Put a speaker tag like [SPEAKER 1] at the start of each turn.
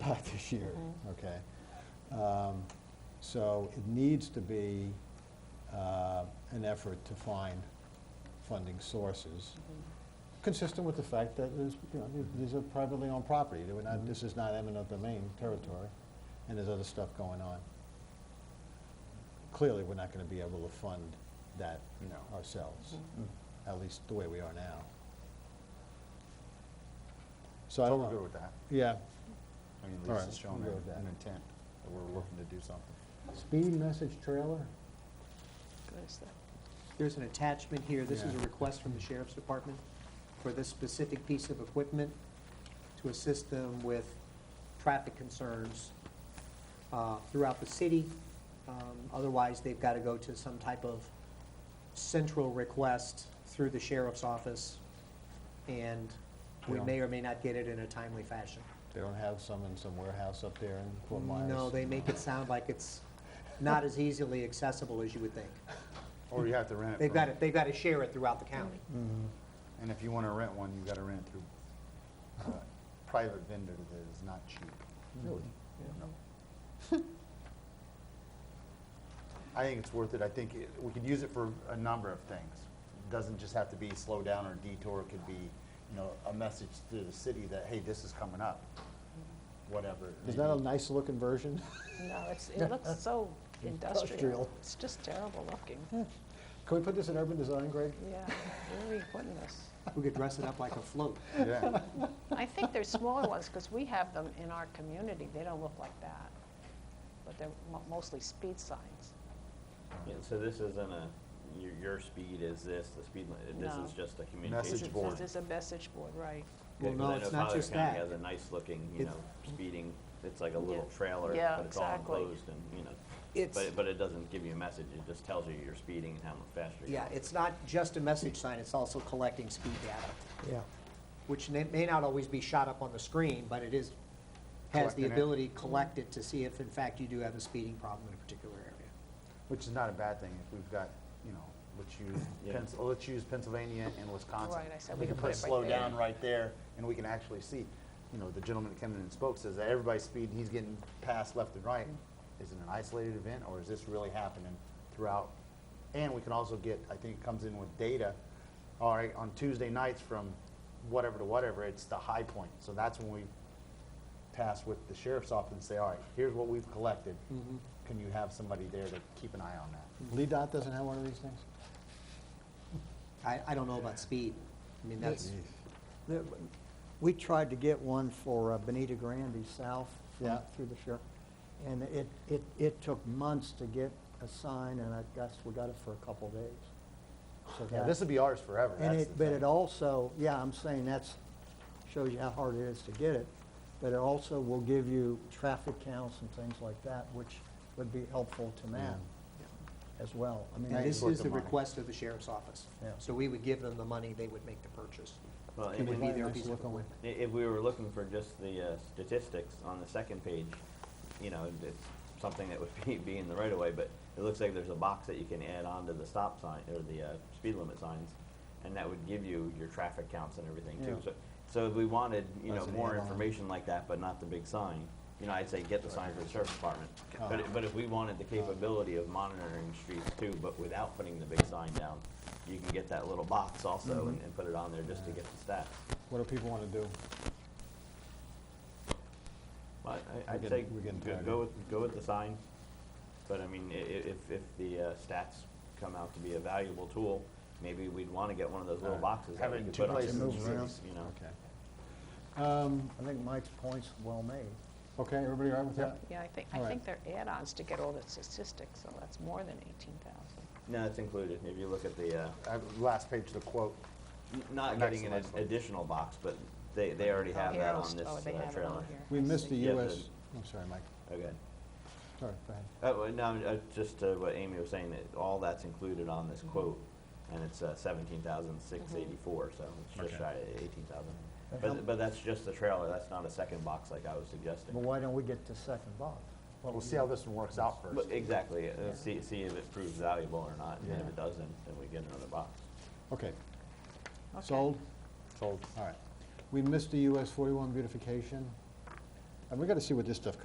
[SPEAKER 1] lot this year, okay? Um, So it needs to be uh, an effort to find funding sources, consistent with the fact that there's, you know, th- these are privately owned property. They were not, this is not eminent domain territory, and there's other stuff going on. Clearly, we're not gonna be able to fund that
[SPEAKER 2] No.
[SPEAKER 1] ourselves, at least the way we are now. So I don't
[SPEAKER 2] I'm good
[SPEAKER 1] know,
[SPEAKER 2] with that.
[SPEAKER 1] yeah,
[SPEAKER 2] I mean,
[SPEAKER 1] All right,
[SPEAKER 2] Lisa's shown
[SPEAKER 1] we'll go with
[SPEAKER 2] an
[SPEAKER 1] that.
[SPEAKER 2] an intent, that we're looking to do something.
[SPEAKER 1] speed message trailer?
[SPEAKER 3] There's an attachment here, this is a
[SPEAKER 1] Yeah.
[SPEAKER 3] request from the sheriff's department for this specific piece of equipment to assist them with traffic concerns uh, throughout the city. Um, Otherwise, they've got to go to some type of central request through the sheriff's office, and we
[SPEAKER 1] Yeah.
[SPEAKER 3] may or may not get it in a timely fashion.
[SPEAKER 1] They don't have some in some warehouse up there in Fort Myers?
[SPEAKER 3] No, they make it sound like it's not as easily accessible as you would think.
[SPEAKER 2] Or you have to rent it.
[SPEAKER 3] They've
[SPEAKER 2] from-
[SPEAKER 3] got to, they've got to share it throughout the county.
[SPEAKER 2] And if you want to rent one, you've got to rent it through a private vendor that is not cheap.
[SPEAKER 1] Really?
[SPEAKER 2] No. I think it's worth it. I think it- we could use it for a number of things. It Doesn't just have to be slow down or detour. It could be, you know, a message to the city that, hey, this is coming up, whatever. it
[SPEAKER 1] Mm-hmm. Is
[SPEAKER 2] may
[SPEAKER 1] that a
[SPEAKER 2] be.
[SPEAKER 1] nice-looking version?
[SPEAKER 4] No, it's, it looks so
[SPEAKER 1] Industrial. Hmm.
[SPEAKER 4] industrial. It's just terrible looking.
[SPEAKER 1] Can we put this in urban design, Greg?
[SPEAKER 4] Yeah, where are we putting this?
[SPEAKER 3] We could dress it up like a float.
[SPEAKER 2] Yeah.
[SPEAKER 4] I think they're smaller ones, because we have them in our community. They don't look like that. But they're mo- mostly speed signs.
[SPEAKER 5] Yeah, so this isn't a, your, your speed is this, the speed limit, this
[SPEAKER 4] No.
[SPEAKER 5] is just a communication.
[SPEAKER 2] Message board.
[SPEAKER 4] This is a message board, right.
[SPEAKER 5] Yeah,
[SPEAKER 3] Well,
[SPEAKER 5] 'cause
[SPEAKER 3] no,
[SPEAKER 5] I know
[SPEAKER 3] it's not
[SPEAKER 5] Fowler
[SPEAKER 3] just that.
[SPEAKER 5] County has a nice looking, you
[SPEAKER 3] It's-
[SPEAKER 5] know, speeding, it's like a little
[SPEAKER 4] Yeah.
[SPEAKER 5] trailer,
[SPEAKER 4] Yeah,
[SPEAKER 5] but it's all
[SPEAKER 4] exactly.
[SPEAKER 5] enclosed and, you know.
[SPEAKER 3] It's-
[SPEAKER 5] But, it- but it doesn't give you a message, it just tells you you're speeding and how much faster you're
[SPEAKER 3] Yeah,
[SPEAKER 5] going.
[SPEAKER 3] it's not just a message sign, it's also collecting speed data,
[SPEAKER 6] Yeah,
[SPEAKER 3] which may may not always be shot up on the screen, but it is, has
[SPEAKER 2] Collecting
[SPEAKER 3] the
[SPEAKER 2] it.
[SPEAKER 3] ability to collect it to see if in fact you do have a speeding problem in a particular area.
[SPEAKER 2] Which is not a bad thing if we've got, you know, let's use,
[SPEAKER 5] Yeah.
[SPEAKER 2] Pens- let's use Pennsylvania and Wisconsin.
[SPEAKER 4] Right, I said we could put it right
[SPEAKER 2] slow
[SPEAKER 4] there.
[SPEAKER 2] down right there, and we can actually see, you know, the gentleman that came in and spoke says that everybody's speeding, he's getting passed left and right. Is it an isolated event, or is this really happening throughout? And we can also get, I think it comes in with data, all right, on Tuesday nights from whatever to whatever, it's the high point. So that's when we pass with the sheriff's office and say, all right, here's what we've collected.
[SPEAKER 6] Mm-hmm.
[SPEAKER 2] Can you have somebody there to keep an eye on that?
[SPEAKER 1] Lee Dot doesn't have one of these things?
[SPEAKER 3] I, I don't know about speed. I mean, that's,
[SPEAKER 6] The- we tried to get one for uh, Benita Grande South from-
[SPEAKER 1] Yeah.
[SPEAKER 6] through the sheriff, and it, it, it took months to get a sign, and I guess we got it for a couple days. So
[SPEAKER 2] Yeah,
[SPEAKER 6] that-
[SPEAKER 2] this will be ours forever.
[SPEAKER 6] And
[SPEAKER 2] that's
[SPEAKER 6] it,
[SPEAKER 2] the
[SPEAKER 6] but
[SPEAKER 2] thing.
[SPEAKER 6] it also, yeah, I'm saying that's, shows you how hard it is to get it, but it also will give you traffic counts and things like that, which would be helpful to man as well. I mean,
[SPEAKER 3] and
[SPEAKER 6] that-
[SPEAKER 3] this
[SPEAKER 2] worth
[SPEAKER 3] is
[SPEAKER 2] the
[SPEAKER 3] the
[SPEAKER 2] money.
[SPEAKER 3] request of the sheriff's office.
[SPEAKER 6] Yeah.
[SPEAKER 3] So we would give them the money, they would make the purchase.
[SPEAKER 5] Well,
[SPEAKER 3] It
[SPEAKER 5] and
[SPEAKER 3] would
[SPEAKER 5] if-
[SPEAKER 3] be
[SPEAKER 1] Right,
[SPEAKER 3] their
[SPEAKER 1] nice
[SPEAKER 3] piece of
[SPEAKER 1] looking one.
[SPEAKER 3] equipment.
[SPEAKER 5] I- If we were looking for just the uh, statistics on the second page, you know, it- it's something that would be, be in the right of way, but it looks like there's a box that you can add on to the stop sign, or the uh, speed limit signs, and that would give you your traffic counts and everything too.
[SPEAKER 6] Yeah.
[SPEAKER 5] So, so if we wanted, you know,
[SPEAKER 1] That's an
[SPEAKER 5] more
[SPEAKER 1] add-on.
[SPEAKER 5] information like that, but not the big sign, you know, I'd say get the sign for the sheriff's department. But, i- but if we wanted the capability of monitoring streets too, but without putting the big sign down, you can get that little box also and, and put it on there just to get the stats.
[SPEAKER 1] What do people want to do?
[SPEAKER 5] Well, I, I'd
[SPEAKER 1] getting-
[SPEAKER 5] say,
[SPEAKER 1] we're getting
[SPEAKER 5] go-
[SPEAKER 1] tired.
[SPEAKER 5] go with, go with the sign, but I mean, i- i- if, if the uh, stats come out to be a valuable tool, maybe we'd wanna get one of those little
[SPEAKER 1] Uh,
[SPEAKER 2] Alright.
[SPEAKER 5] boxes that
[SPEAKER 2] Have
[SPEAKER 5] we
[SPEAKER 2] it in
[SPEAKER 5] could
[SPEAKER 2] two
[SPEAKER 5] put on
[SPEAKER 2] places.
[SPEAKER 5] certain
[SPEAKER 6] Move around.
[SPEAKER 5] streets, you know?
[SPEAKER 1] Okay. Um,
[SPEAKER 6] I think Mike's point's well made.
[SPEAKER 1] Okay, everybody all right with that?
[SPEAKER 4] Yeah, I think,
[SPEAKER 1] All
[SPEAKER 4] I
[SPEAKER 1] right.
[SPEAKER 4] think they're add-ons to get all the statistics, so that's more than 18,000.
[SPEAKER 5] No, it's included, if you look at the, uh,
[SPEAKER 2] Uh, Last page, the quote.
[SPEAKER 5] n- not
[SPEAKER 2] Next
[SPEAKER 5] getting an
[SPEAKER 2] slide,
[SPEAKER 5] ad-
[SPEAKER 2] please.
[SPEAKER 5] additional box, but they, they already
[SPEAKER 4] Oh,
[SPEAKER 5] have
[SPEAKER 4] here,
[SPEAKER 5] that
[SPEAKER 4] I'll
[SPEAKER 5] on
[SPEAKER 4] s-
[SPEAKER 5] this
[SPEAKER 4] oh,
[SPEAKER 5] uh,
[SPEAKER 4] they have it on
[SPEAKER 5] trailer. Oh,
[SPEAKER 4] here.
[SPEAKER 1] We
[SPEAKER 4] I
[SPEAKER 1] missed
[SPEAKER 4] see.
[SPEAKER 1] the
[SPEAKER 5] Yeah,
[SPEAKER 1] US,
[SPEAKER 5] the-
[SPEAKER 1] I'm sorry, Mike,
[SPEAKER 5] Okay.
[SPEAKER 1] sorry, go ahead.
[SPEAKER 5] Uh, well, no, uh, just uh, what Amy was saying, that all that's included on this quote, and it's uh, seventeen thousand six eighty-four, so it's
[SPEAKER 1] Okay.
[SPEAKER 5] just shy of eighteen thousand.
[SPEAKER 6] But how-
[SPEAKER 5] But, but that's just the trailer, that's not a second box like I was suggesting.
[SPEAKER 6] But why don't we get the second box?
[SPEAKER 2] Well, we'll see how this one works out first.
[SPEAKER 5] But exactly, uh, see, see if it proves valuable or not, and if
[SPEAKER 1] Yeah.
[SPEAKER 5] it doesn't, then we get another box.
[SPEAKER 1] Okay,
[SPEAKER 4] Okay.
[SPEAKER 1] sold? Sold. All right. We missed the US 41 beautification. And we gotta see what this stuff